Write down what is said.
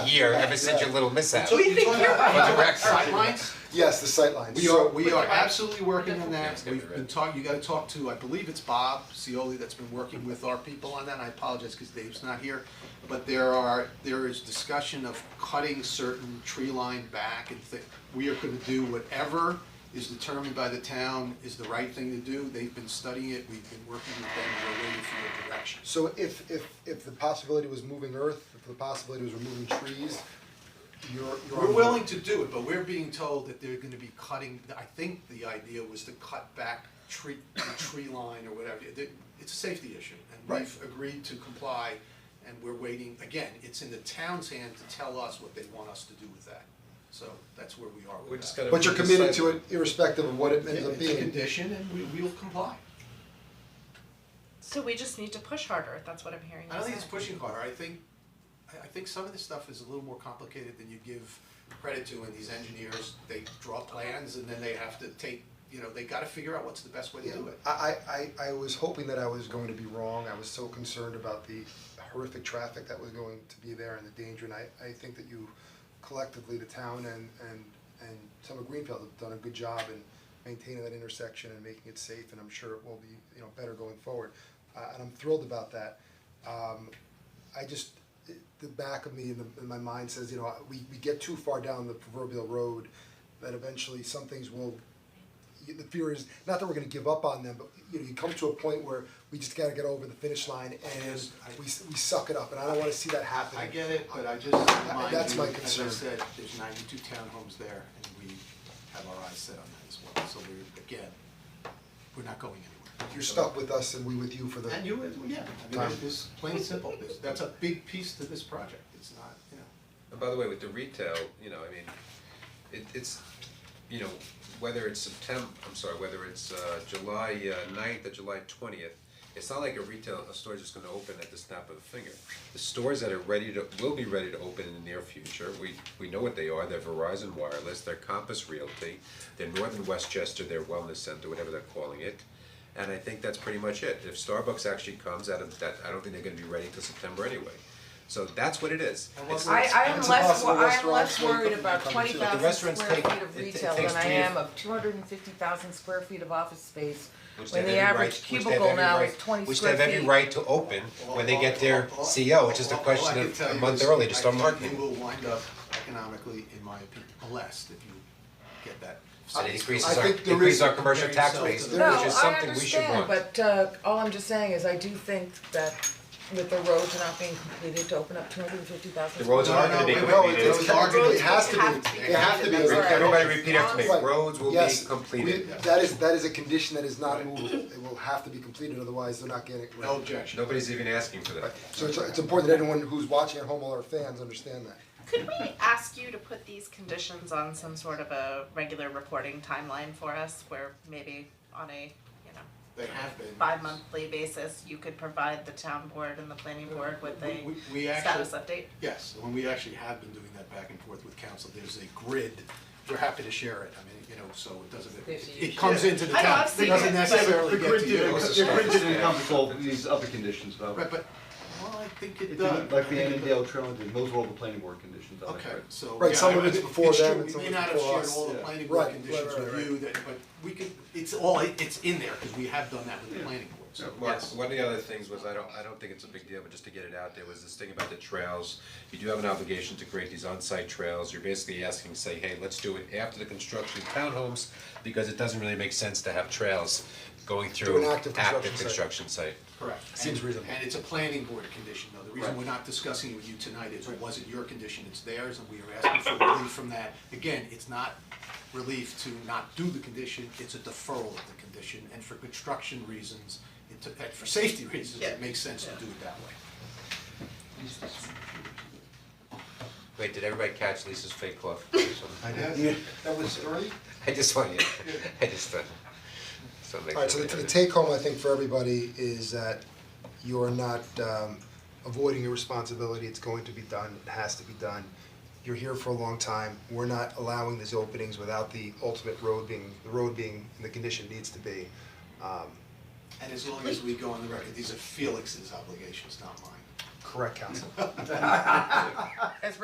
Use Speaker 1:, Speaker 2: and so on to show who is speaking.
Speaker 1: year ever since your little mishap.
Speaker 2: So
Speaker 1: With
Speaker 2: you're talking about
Speaker 1: the rec section.
Speaker 3: Sidelines,
Speaker 2: Yes, the sightlines.
Speaker 3: we are,
Speaker 2: So-
Speaker 3: we are absolutely working on
Speaker 1: Yeah,
Speaker 3: that,
Speaker 1: it's gonna be
Speaker 3: we've
Speaker 1: red.
Speaker 3: been talking, you gotta talk to, I believe it's Bob Cioli that's been working with our people on that, I apologize because Dave's not here. But there are, there is discussion of cutting certain tree line back and thi- we are gonna do whatever is determined by the town is the right thing to do, they've been studying it, we've been working with them, we're waiting for your direction.
Speaker 2: So if if if the possibility was moving earth, if the possibility was removing trees, you're you're. on
Speaker 3: We're
Speaker 2: board.
Speaker 3: willing to do it, but we're being told that they're gonna be cutting, I think the idea was to cut back tree, the tree line or whatever. It- It's a safety issue, and we've
Speaker 2: Right.
Speaker 3: agreed to comply, and we're waiting, again, it's in the town's hand to tell us what they want us to do with that. So that's where we are
Speaker 1: We're
Speaker 3: with
Speaker 1: just
Speaker 3: that.
Speaker 1: gonna.
Speaker 2: But you're committed to
Speaker 1: decide-
Speaker 2: it irrespective of what it ends up
Speaker 3: It's a
Speaker 2: being.
Speaker 3: condition, and we, we'll comply.
Speaker 4: So we just need to push harder, that's what I'm hearing you
Speaker 3: I don't think it's
Speaker 4: say.
Speaker 3: pushing harder, I think, I, I think some of this stuff is a little more complicated than you give credit to, and these engineers, they draw plans and then they have to take, you know, they gotta figure out what's the best way to
Speaker 2: Yeah,
Speaker 3: do it.
Speaker 2: I I I I was hoping that I was going to be wrong, I was so concerned about the horrific traffic that was going to be there and the danger, and I I think that you collectively, the town and and and some of Greenfield have done a good job in maintaining that intersection and making it safe, and I'm sure it will be, you know, better going forward. Uh and I'm thrilled about that. Um I just, it- the back of me and the, and my mind says, you know, we we get too far down the proverbial road that eventually some things will you- the fear is not that we're gonna give up on them, but you know, you come to a point where we just gotta get over the finish line and we s- we suck it up, and I don't wanna see that happen.
Speaker 3: I get it, but I just remind you,
Speaker 2: That's
Speaker 3: as
Speaker 2: my
Speaker 3: I
Speaker 2: concern.
Speaker 3: said, there's ninety-two townhomes there, and we have our eyes set on that as well, so we're, again, we're not going anywhere.
Speaker 2: You're stuck with us and we with you for the.
Speaker 3: And you, yeah, I mean,
Speaker 2: Time.
Speaker 3: it's just plain and simple, This- that's a big piece to this project, it's not, you know.
Speaker 1: And by the way, with the retail, you know, I mean, it it's, you know, whether it's September, I'm sorry, whether it's uh July uh, 9th or July twentieth, it's not like a retail, a store's just gonna open at the snap of a finger. The stores that are ready to, will be ready to open in the near future, we we know what they are, they're Verizon Wireless, they're Compass Realty, they're Northern Westchester, their Wellness Center, whatever they're calling it. And I think that's pretty much it, if Starbucks actually comes out of that, I don't think they're gonna be ready till September anyway. So that's what it is,
Speaker 3: And what
Speaker 1: it's
Speaker 3: we're-
Speaker 5: I I am
Speaker 2: It's
Speaker 5: less,
Speaker 2: impossible
Speaker 5: wor- I am
Speaker 2: restaurants
Speaker 5: less
Speaker 2: won't
Speaker 5: worried
Speaker 2: come-
Speaker 5: about
Speaker 2: come to
Speaker 5: twenty
Speaker 2: the
Speaker 5: thousand
Speaker 1: restaurants
Speaker 5: square
Speaker 1: take-
Speaker 5: feet of
Speaker 1: it- it
Speaker 5: retail
Speaker 1: takes
Speaker 5: than I
Speaker 1: three or-
Speaker 5: am of two hundred and fifty thousand square feet of office space.
Speaker 1: Which
Speaker 5: When
Speaker 1: they
Speaker 5: the
Speaker 1: have every
Speaker 5: average
Speaker 1: right- which they have
Speaker 5: cubicle
Speaker 1: every
Speaker 5: now
Speaker 1: right-
Speaker 5: is twenty
Speaker 1: Which they
Speaker 5: square
Speaker 1: have every
Speaker 5: feet.
Speaker 1: right to open when they get their E CO, it's just a question of a month early to start
Speaker 3: All I can tell you is, I think you
Speaker 1: marketing.
Speaker 3: will wind up economically, in my opinion, blessed if you get that.
Speaker 1: So it
Speaker 2: I
Speaker 1: increases our,
Speaker 2: think there
Speaker 1: increases
Speaker 2: is-
Speaker 1: our commercial
Speaker 3: there
Speaker 1: tax
Speaker 3: yourself
Speaker 1: base,
Speaker 3: to
Speaker 1: which
Speaker 3: the-
Speaker 1: is something we should
Speaker 5: No, I understand,
Speaker 1: want.
Speaker 5: but uh all I'm just saying is I do think that with the roads not being completed, to open up two hundred and fifty thousand.
Speaker 1: The roads are gonna be
Speaker 3: No, no,
Speaker 2: No, it
Speaker 1: completed.
Speaker 2: it's arguably, it has to be, it has to be.
Speaker 5: That's right.
Speaker 1: Everybody repeat after me,
Speaker 2: Right.
Speaker 1: roads will be
Speaker 2: Yes,
Speaker 1: completed.
Speaker 2: we- that is, that is a condition that is not movable, it will have to be completed, otherwise they're not getting it
Speaker 3: No
Speaker 2: right.
Speaker 3: objection.
Speaker 1: Nobody's even asking for that.
Speaker 2: So it's it's important that anyone who's watching at home, all our fans, understand that.
Speaker 4: Could we ask you to put these conditions on some sort of a regular reporting timeline for us, where maybe on a, you know,
Speaker 3: They have been.
Speaker 4: bi-monthly basis, you could provide the town board and the planning board with
Speaker 3: We-
Speaker 4: a
Speaker 3: we- we actually-
Speaker 4: status update?
Speaker 3: Yes, when we actually have been doing that back and forth with council, there's a grid, we're happy to share it, I mean, you know, so it doesn't,
Speaker 5: There's
Speaker 3: it
Speaker 5: a
Speaker 3: it
Speaker 5: huge-
Speaker 3: comes into the
Speaker 4: I know,
Speaker 3: town,
Speaker 4: I've
Speaker 3: it
Speaker 4: seen
Speaker 3: doesn't
Speaker 4: it, but-
Speaker 3: necessarily get to you.
Speaker 1: did-
Speaker 6: The grid didn't encompass all these other conditions though.
Speaker 3: Right, but, well, I think it
Speaker 6: It
Speaker 3: does.
Speaker 6: didn't, like the Annandale Trail, did. those were all the planning board conditions on it,
Speaker 3: Okay,
Speaker 6: right?
Speaker 3: so.
Speaker 2: Right,
Speaker 3: yeah,
Speaker 2: some of
Speaker 3: I-
Speaker 2: it's
Speaker 3: I-
Speaker 2: before them and
Speaker 3: It's true, we
Speaker 2: some of
Speaker 3: may
Speaker 2: it's
Speaker 3: not have
Speaker 2: before
Speaker 3: shared
Speaker 2: us,
Speaker 3: all the
Speaker 6: yeah.
Speaker 3: planning board
Speaker 2: Right,
Speaker 3: conditions
Speaker 2: right, right,
Speaker 3: with you that, but we could, it's all, it's in there, cause we have done that with the
Speaker 6: Yeah.
Speaker 3: planning board, so,
Speaker 1: Mark,
Speaker 3: yes.
Speaker 1: one of the other things was, I don't, I don't think it's a big deal, but just to get it out there, was this thing about the trails. You do have an obligation to create these on-site trails, you're basically asking, say, hey, let's do it after the construction of townhomes, because it doesn't really make sense to have trails going through
Speaker 2: an active
Speaker 1: active
Speaker 2: construction
Speaker 1: construction site.
Speaker 3: Correct.
Speaker 2: Seems
Speaker 3: And-
Speaker 2: reasonable.
Speaker 3: And it's a planning board condition, though, the reason
Speaker 6: Right.
Speaker 3: we're not discussing it with you tonight is it wasn't your condition, it's theirs, and we are asking for relief from that. Again, it's not relief to not do the condition, it's a deferral of the condition, and for construction reasons, it, took- and for safety reasons,
Speaker 4: Yeah.
Speaker 3: it makes sense to do it that way.
Speaker 1: Wait, did everybody catch Lisa's fake cough?
Speaker 7: I did, that was early,
Speaker 1: I just want you, I just, uh, so make
Speaker 2: Alright, so the the take home, I think, for everybody is that you're not um avoiding your responsibility, it's going to be done, it has to be done. You're here for a long time, we're not allowing these openings without the ultimate road being, the road being in the condition it needs to be. Um
Speaker 3: And as long as we go on the record, these are Felix's obligations, not mine.
Speaker 2: correct, counsel.